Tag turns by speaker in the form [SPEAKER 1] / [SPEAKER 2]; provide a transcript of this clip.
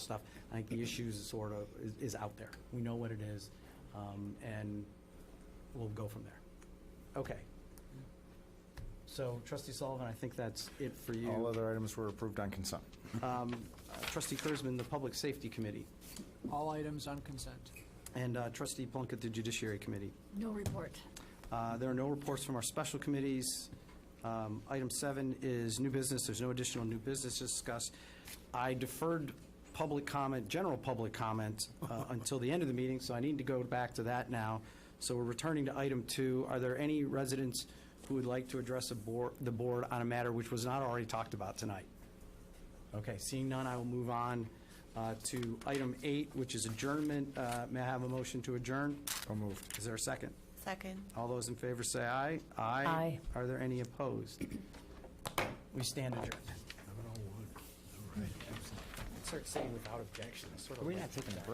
[SPEAKER 1] stuff. I think the issues is sort of, is, is out there. We know what it is, um, and we'll go from there. Okay. So trustee Sullivan, I think that's it for you.
[SPEAKER 2] All other items were approved on consent.
[SPEAKER 1] Um, uh, Trustee Kurzman, the Public Safety Committee,
[SPEAKER 3] All items on consent.
[SPEAKER 1] and uh, Trustee Plunkett, the Judiciary Committee.
[SPEAKER 4] No report.
[SPEAKER 1] Uh, There are no reports from our special committees. Um, Item seven is new business. There's no additional new business to discuss. I deferred public comment, general public comment, uh, until the end of the meeting, so I need to go back to that now. So we're returning to item two. Are there any residents who would like to address the board, the board on a matter which was not already talked about tonight? Okay, seeing none, I will move on uh, to item eight, which is adjournment. Uh, May I have a motion to adjourn?
[SPEAKER 2] So moved.
[SPEAKER 1] Is there a second?
[SPEAKER 4] Second.
[SPEAKER 1] All those in favor say aye.
[SPEAKER 4] Aye.
[SPEAKER 1] Are there any opposed? We stand adjourned. Start saying without objection, sort of.
[SPEAKER 2] Are we not taking a break?